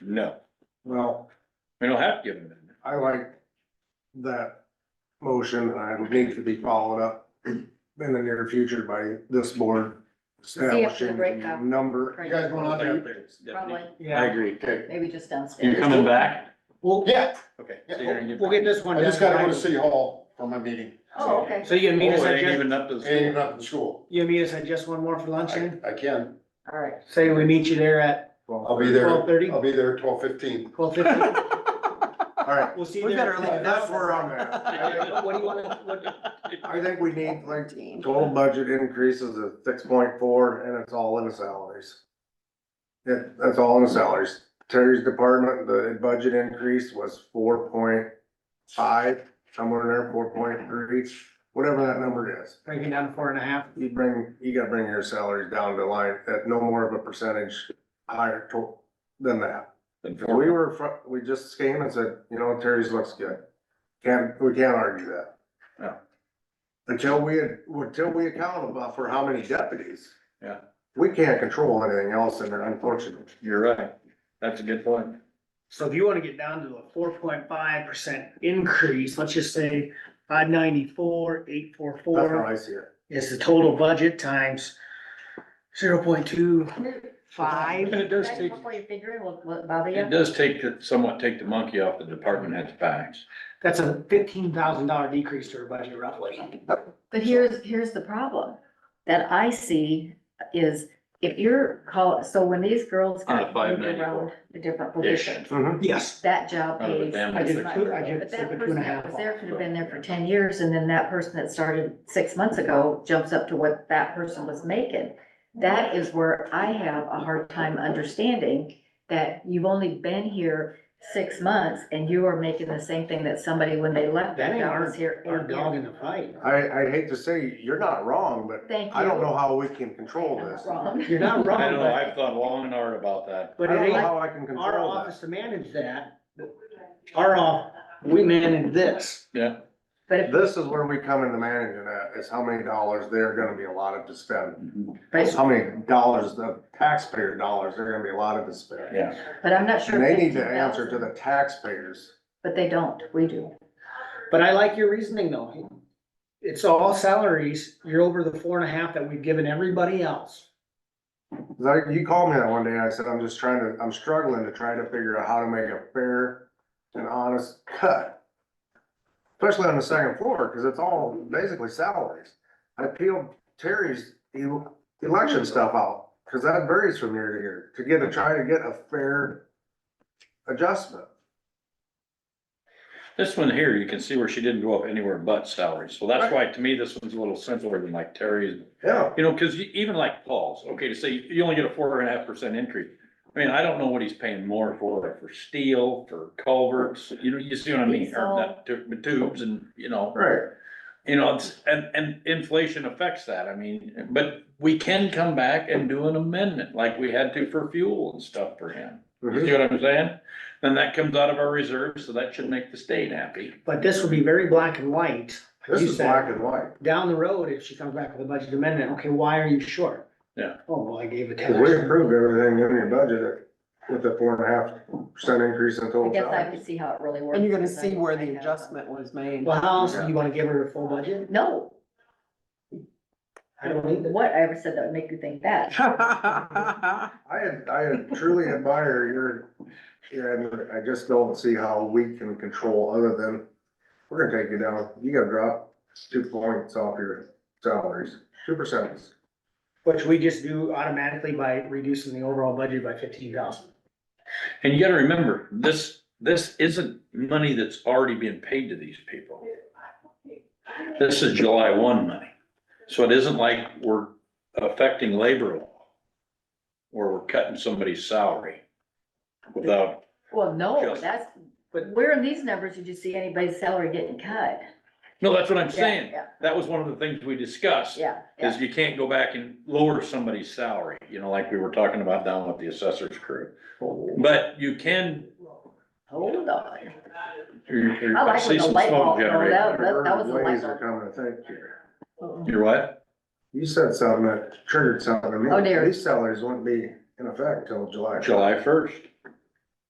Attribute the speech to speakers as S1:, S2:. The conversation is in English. S1: No,
S2: Well,
S1: we don't have to give them. that.
S2: I like that motion, and it needs to be followed up in the near future by this board establishing a
S3: breakout.
S2: number.
S3: You guys
S2: want
S3: Probably,
S1: I agree.
S3: maybe just
S1: You're
S3: downstairs.
S1: coming back?
S4: Well, yeah,
S1: Okay. so you're gonna
S4: yeah, we'll get this one.
S5: I just
S4: done
S5: gotta go to
S4: tonight.
S5: City Hall for my meeting.
S3: Oh, okay.
S4: So you
S1: Oh,
S4: and me to
S1: it ain't
S4: suggest,
S1: even up to. the
S5: Ain't
S1: school.
S5: up in school.
S4: you and me to suggest one more for lunch
S5: I,
S4: then?
S5: I can.
S3: All right.
S4: Say we meet you there at
S5: I'll be there.
S4: twelve thirty,
S5: I'll be there twelve fifteen.
S4: twelve fifty?
S2: All right,
S4: We'll see you
S2: We
S4: there.
S2: better leave that where I'm at.
S4: What do you wanna, what,
S2: I think we need like
S3: Fourteen.
S2: total budget increases of six point four and it's all in the salaries. Yeah, that's all in the salaries. Terry's department, the budget increase was four point five, somewhere in there, four point three, whatever that number is.
S4: break it down to four and a half?
S2: You bring, you gotta bring your salaries down to line at no more of a percentage higher to, than that.
S1: Then
S2: If we were, fr- we just came and said, you know, Terry's looks good. Can't, we can't argue that.
S1: No.
S2: Until we, had- until we account about for how many deputies.
S1: Yeah.
S2: We can't control anything else and they're unfortunate.
S1: You're right. That's a good point.
S4: So if you wanna get down to a four point five percent increase, let's just say five ninety-four, eight four
S2: That's how
S4: four
S2: I see it.
S4: is the total budget times zero point two
S1: And
S4: five.
S1: it does take,
S3: Before you figure it, will, will it bother
S1: it
S3: you?
S1: does take, the- somewhat take the monkey off the department head's backs.
S4: That's a fifteen thousand dollar decrease to our budget roughly.
S3: But here's, here's the problem that I see is if you're call, so when these girls
S1: On a
S3: got moved
S1: 594.
S3: around the different
S1: Ish.
S3: positions,
S2: Mhm.
S4: Yes.
S3: that job
S1: Out of the
S3: pays.
S1: family
S4: I
S3: this
S4: did
S3: much.
S4: two, I did
S3: But that
S4: seven, two and
S3: person
S4: a
S3: that
S4: half.
S3: was there could have been there for ten years, and then that person that started six months ago jumps up to what that person was making. That is where I have a hard time understanding that you've only been here six months and you are making the same thing that somebody when they left.
S4: That ain't
S3: that was here
S4: Our
S3: eight
S4: dog
S3: years.
S4: in the fight.
S2: I, I hate to say, you're not wrong, but
S3: Thank you.
S2: I don't know how we can control
S3: I'm not
S2: this. I
S3: wrong.
S4: You're not wrong,
S1: I don't know,
S4: but,
S1: I've thought long and hard about that.
S4: but it
S2: don't know
S4: ain't
S2: how I can
S4: our
S2: control that.
S4: office to manage that. Our off, we manage this.
S1: Yeah,
S3: But if,
S2: This is where we come into managing that, is how many dollars they're gonna be allotted to spend.
S4: Mm-hmm.
S3: but
S2: How many dollars, the taxpayer dollars, they're gonna be allotted to spend.
S1: yeah.
S3: But I'm not sure.
S2: And they need to answer
S3: 15,000,
S2: to the taxpayers.
S3: But they don't, we do.
S4: But I like your reasoning though. It's all salaries. You're over the four and a half that we've given everybody else.
S2: Like, you called me that one day, and I said, I'm just trying to, I'm struggling to try to figure out how to make a fair and honest cut. Especially on the second floor, cause it's all basically salaries. I peeled Terry's el- election stuff out, cause that varies from year to year, to get, to try to get a fair adjustment.
S1: This one here, you can see where she didn't go up anywhere but salary. So that's why to me, this one's a little simpler than like Terry's.
S2: Yeah.
S1: You know, cause you- even like Paul's, okay, to say you only get a four and a half percent increase. I mean, I don't know what he's paying more for, for steel, for culverts, you know, you see what I mean? Or not tu- tubes and, you know.
S2: Right,
S1: You know, it's, and, and inflation affects that, I mean, but we can come back and do an amendment like we had to for fuel and stuff for him. You see what I'm saying? Then that comes out of our reserves, so that should make the state happy.
S4: But this will be very black and white.
S2: this
S4: You
S2: is
S4: said-
S2: black and white,
S4: Down the road, if she comes back with a budget amendment, okay, why are you short?
S1: Yeah.
S4: Oh, well, I gave a ten.
S2: cause we approved everything in your budget with the four and a half percent increase in
S3: I
S2: total
S3: guess I
S2: salaries.
S3: could see how it really works.
S6: And you're gonna
S3: because I
S6: see
S3: don't
S6: where
S3: think
S6: the
S3: I have one.
S6: adjustment was made.
S4: Well, how else do you wanna give her a full budget?
S3: No,
S4: I don't need that.
S3: what I ever said that would make you think that.
S2: I ad- I truly admire your, and I just don't see how we can control other than, we're gonna take you down, you gotta drop two points off your salaries, two percent.
S4: Which we just do automatically by reducing the overall budget by fifteen thousand.
S1: And you gotta remember, this, this isn't money that's already being paid to these people. This is July one money, so it isn't like we're affecting labor law. Where we're cutting somebody's salary without,
S3: Well, no,
S1: Just-
S3: that's,
S4: But-
S3: where in these numbers did you see anybody's salary getting cut?
S1: no, that's what I'm
S3: Yeah,
S1: saying.
S3: Yeah,
S1: That was one of the things we discussed.
S3: yeah,
S1: is
S3: yeah.
S1: you can't go back and lower somebody's salary, you know, like we were talking about down with the assessor's crew. But you can,
S3: Hold on.
S1: you're, you're-
S3: I like
S1: I
S3: when
S1: see
S3: the
S1: some
S3: light
S1: smoke
S3: bulb goes
S1: generating.
S3: out. that- that was a
S2: Ways
S3: light
S2: are coming to think here.
S3: Mm-mm.
S1: You're what?
S2: You said something that triggered something in me.
S3: Oh, dear.
S2: These salaries wouldn't be in effect until July.
S1: July first.